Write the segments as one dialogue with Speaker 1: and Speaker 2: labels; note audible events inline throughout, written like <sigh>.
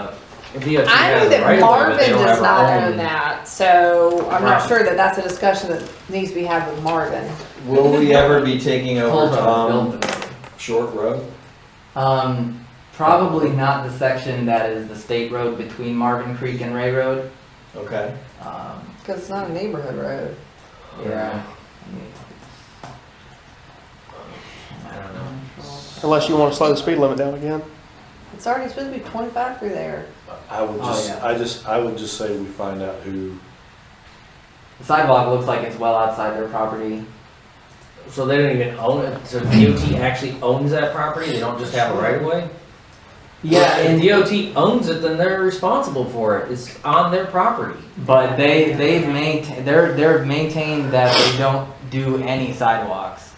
Speaker 1: VFC
Speaker 2: I
Speaker 1: has
Speaker 2: knew
Speaker 1: the right of way, but
Speaker 2: that
Speaker 1: they
Speaker 2: Marvin
Speaker 1: don't have
Speaker 2: does
Speaker 1: a
Speaker 2: not
Speaker 1: home.
Speaker 2: own that, so I'm not
Speaker 1: Right.
Speaker 2: sure that that's a discussion that needs to be had with Marvin.
Speaker 1: <laughs>
Speaker 3: Will we ever be taking over
Speaker 4: Hold
Speaker 3: Tom
Speaker 4: on,
Speaker 1: Um,
Speaker 3: Short Road?
Speaker 4: Um, probably not the section that is the state road between Marvin Creek and Ray Road.
Speaker 3: Okay.
Speaker 4: Um,
Speaker 2: Cause it's not a neighborhood road.
Speaker 4: yeah. I mean,
Speaker 1: I don't know.
Speaker 5: Unless you want to slow the speed limit down again.
Speaker 2: It's already supposed to be twenty-five through there.
Speaker 6: I would
Speaker 4: Oh,
Speaker 6: just,
Speaker 4: yeah.
Speaker 6: I just, I would just say we find out who,
Speaker 4: The sidewalk looks like it's well outside their property.
Speaker 1: So they don't even own it, so DOT actually owns that property, they don't just have a right of way?
Speaker 4: Yeah,
Speaker 1: If
Speaker 4: and
Speaker 1: DOT owns it, then they're responsible for it, it's on their property.
Speaker 4: but they they've maintained they're they're maintained that they don't do any sidewalks,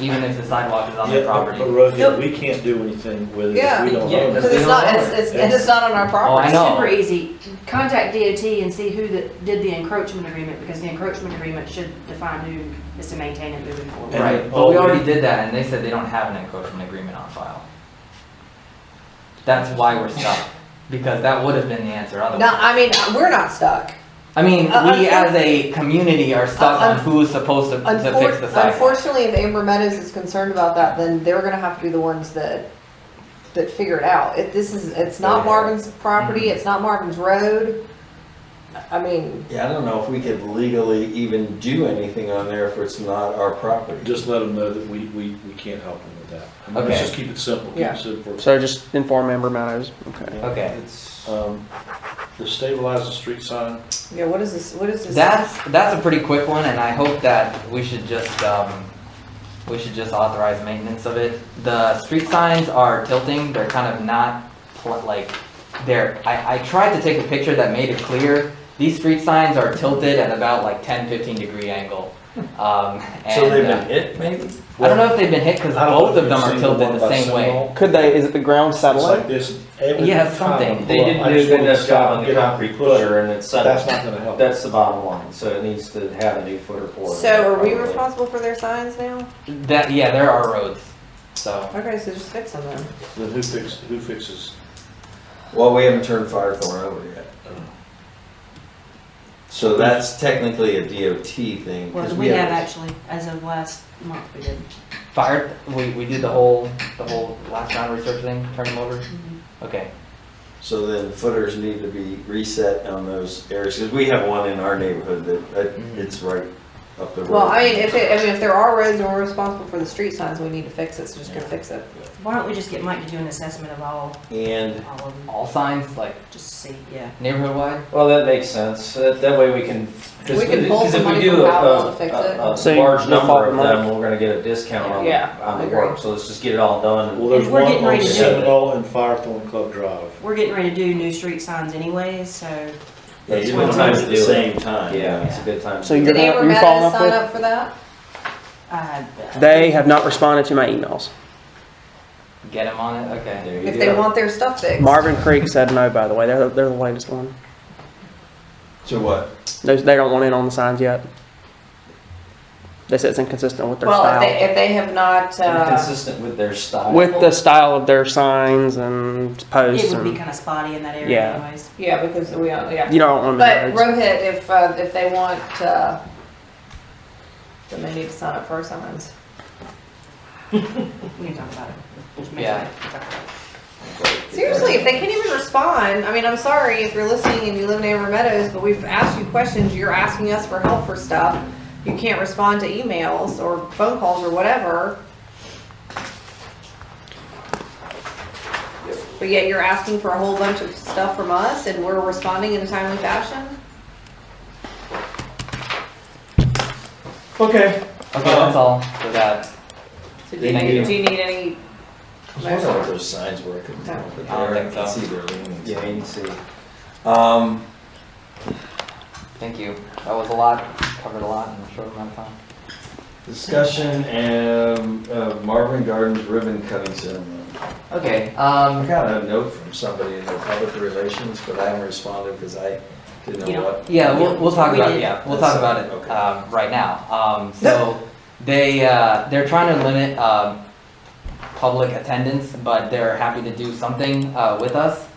Speaker 4: even if the sidewalk is on
Speaker 6: yeah,
Speaker 4: their
Speaker 6: but
Speaker 4: property.
Speaker 6: but Rosie,
Speaker 2: Yep.
Speaker 6: we can't do anything with it
Speaker 2: Yeah.
Speaker 6: if we don't
Speaker 1: Yeah,
Speaker 6: own
Speaker 1: that's-
Speaker 6: it.
Speaker 2: Cause
Speaker 1: they
Speaker 2: it's
Speaker 1: don't
Speaker 2: not,
Speaker 1: own
Speaker 2: it's,
Speaker 1: it.
Speaker 2: it's, and it's not on our
Speaker 4: Oh, I
Speaker 2: property.
Speaker 4: know.
Speaker 7: Super easy. Contact DOT and see who that did the encroachment agreement, because the encroachment agreement should define who is to maintain it moving forward.
Speaker 4: Right, but we already did that, and they said they don't have an encroachment agreement on file. That's why we're stuck, because that would have been the answer
Speaker 2: No,
Speaker 4: otherwise.
Speaker 2: I mean, we're not stuck.
Speaker 4: I mean,
Speaker 2: Uh,
Speaker 4: we
Speaker 2: unfor-
Speaker 4: as a community are stuck
Speaker 2: Uh,
Speaker 4: on who's supposed to, to fix the
Speaker 2: Unfor-
Speaker 4: sidewalk.
Speaker 2: Unfortunately, if Amber Meadows is concerned about that, then they're gonna have to be the ones that, that figure it out. If this is, it's not
Speaker 3: Yeah.
Speaker 2: Marvin's property, it's not Marvin's road. I mean,
Speaker 3: Yeah, I don't know if we could legally even do anything on there if it's not our property.
Speaker 6: Just let them know that we, we, we can't help them with that. I mean,
Speaker 4: Okay.
Speaker 6: Let's just keep it simple, keep
Speaker 2: Yeah.
Speaker 6: it simple.
Speaker 5: So just inform Amber Meadows. Okay.
Speaker 4: Okay,
Speaker 3: It's,
Speaker 6: Um, the stabilize the street sign,
Speaker 2: yeah, what is this, what is this?
Speaker 4: that's, that's a pretty quick one, and I hope that we should just, um, we should just authorize maintenance of it. The street signs are tilting, they're kind of not, pl- like, they're, I, I tried to take a picture that made it clear. These street signs are tilted at about like 10, 15 degree
Speaker 6: <laughs>
Speaker 4: angle. Um,
Speaker 3: so they've
Speaker 4: and,
Speaker 3: been
Speaker 4: uh,
Speaker 3: hit maybe?
Speaker 4: I don't know if they've been hit, cause
Speaker 6: I don't know
Speaker 4: both
Speaker 6: if
Speaker 4: of them
Speaker 6: you've
Speaker 4: are
Speaker 6: seen the
Speaker 4: tilted
Speaker 6: one
Speaker 4: the
Speaker 6: by
Speaker 4: same way.
Speaker 6: Seminole.
Speaker 5: Could they, is it the ground
Speaker 6: It's
Speaker 5: satellite?
Speaker 6: like this every
Speaker 4: Yeah,
Speaker 6: time
Speaker 4: something.
Speaker 6: I
Speaker 1: They
Speaker 6: pull up,
Speaker 1: didn't
Speaker 6: I
Speaker 1: do a
Speaker 6: just
Speaker 1: good
Speaker 6: wanna
Speaker 1: enough
Speaker 6: stop
Speaker 1: job on
Speaker 6: and
Speaker 1: the
Speaker 6: get out.
Speaker 1: concrete footer and it's
Speaker 6: That's
Speaker 1: settled.
Speaker 6: not gonna help.
Speaker 8: That's the bottom line, so it needs to have a new footer for it.
Speaker 2: So are we
Speaker 8: probably.
Speaker 2: responsible for their signs now?
Speaker 4: That, yeah, there are roads, so.
Speaker 2: Okay, so just fix them then.
Speaker 6: Then who fixes, who fixes? uh,
Speaker 3: Well, we haven't turned Firethorn over yet. So that's technically a DOT thing. 'cause
Speaker 7: Well, we have
Speaker 3: haven't-
Speaker 7: actually, as of last month, we did.
Speaker 4: Fire, we, we did the whole, the whole last round research thing, turn them over? Okay,
Speaker 3: So then footers need to be reset on those areas, because we have one in our neighborhood that, that
Speaker 4: Mhm.
Speaker 3: it's right up the road.
Speaker 2: Well, I mean, if it, I mean, if there are roads and we're responsible for the street signs, we need to fix it, so just go fix it.
Speaker 7: Why don't we just get Mike to do an assessment of all,
Speaker 3: And
Speaker 7: all of them,
Speaker 4: all signs, like
Speaker 7: just to see, yeah.
Speaker 4: neighborhood wide?
Speaker 8: Well, that makes sense, that, that way we can. 'cause
Speaker 2: We can pull
Speaker 8: because if
Speaker 2: some
Speaker 8: we
Speaker 2: money
Speaker 8: do
Speaker 2: from
Speaker 8: a-
Speaker 2: Powell
Speaker 8: a-
Speaker 2: to fix
Speaker 8: a-
Speaker 2: it.
Speaker 5: So
Speaker 8: A
Speaker 5: you-
Speaker 8: Uh, large
Speaker 5: you'll
Speaker 8: number
Speaker 5: follow
Speaker 8: of
Speaker 5: the money.
Speaker 8: them, we're gonna get a discount on,
Speaker 2: Yeah,
Speaker 8: on
Speaker 2: I
Speaker 8: the
Speaker 2: agree.
Speaker 8: work, so let's just get it all done.
Speaker 6: Well, there's
Speaker 7: If we're
Speaker 6: one
Speaker 7: getting ready
Speaker 6: on
Speaker 7: to-
Speaker 6: Seminole and Firethorn Club Drive.
Speaker 7: We're getting ready to do new street signs anyways, so
Speaker 3: Yeah,
Speaker 8: That's
Speaker 3: you
Speaker 8: one
Speaker 3: don't
Speaker 8: time
Speaker 3: have
Speaker 8: to
Speaker 3: it at the
Speaker 8: do it.
Speaker 3: same time.
Speaker 8: Yeah, it's a good time. to
Speaker 5: So
Speaker 8: do
Speaker 5: you're
Speaker 2: Did
Speaker 5: gonna,
Speaker 2: Amber
Speaker 5: you falling
Speaker 2: Meadows
Speaker 5: off
Speaker 2: sign
Speaker 5: with?
Speaker 2: up for that?
Speaker 7: I.
Speaker 5: They have not responded to my emails.
Speaker 4: Get them on it,
Speaker 8: it.
Speaker 4: okay.
Speaker 8: There you
Speaker 2: If they
Speaker 8: go.
Speaker 2: want their stuff fixed.
Speaker 5: Marvin Creek said no, by the way. They're, they're the latest one.
Speaker 3: To what?
Speaker 5: They, they don't want in on the signs yet. They said it's inconsistent with their
Speaker 2: Well, if they,
Speaker 5: style.
Speaker 2: if they have not, uh,
Speaker 8: Consistent with their style.
Speaker 5: With the style of their signs and posts
Speaker 7: It would be
Speaker 5: and,
Speaker 7: kind of spotty in that
Speaker 5: Yeah.
Speaker 7: area anyways.
Speaker 2: yeah, because we, are- yeah.
Speaker 5: you don't want
Speaker 2: But
Speaker 5: them.
Speaker 2: Rohit, if, uh, if they want, uh, then they need to sign up for our signs.
Speaker 7: We can talk about it. Just make
Speaker 4: Yeah.
Speaker 7: sure we talk about it.
Speaker 2: Seriously, if they can't even respond, I mean, I'm sorry if you're listening and you live in Amber Meadows, but we've asked you questions, you're asking us for help for stuff. You can't respond to emails or phone calls or whatever. But yet you're asking for a whole bunch of stuff from us and we're responding in a timely fashion?
Speaker 3: Okay.
Speaker 4: Okay, that's all for that.
Speaker 2: So do
Speaker 3: They
Speaker 2: you,
Speaker 3: need-
Speaker 2: do you need any,
Speaker 3: I was wondering if those signs were, I couldn't tell, but
Speaker 4: I don't
Speaker 3: they're, I
Speaker 4: think
Speaker 3: can
Speaker 4: so.
Speaker 3: see they're leaning.
Speaker 8: Yeah, you can see.
Speaker 3: Um,
Speaker 4: Thank you. That was a lot, covered a lot in a short amount of time.
Speaker 3: discussion, um, of Marvin Gardens ribbon cutting ceremony.
Speaker 4: Okay,
Speaker 3: I
Speaker 4: um,
Speaker 3: got a note from somebody in the public relations, but I haven't responded because I didn't
Speaker 7: You
Speaker 3: know
Speaker 7: don't-
Speaker 3: what.
Speaker 4: yeah, we'll, we'll talk
Speaker 7: We
Speaker 4: about,
Speaker 7: did.
Speaker 4: yeah, we'll talk about it,
Speaker 3: Okay.
Speaker 4: um, right now. Um, so, they, uh, they're trying to limit, um, public attendance, but they're happy to do something, uh, with us.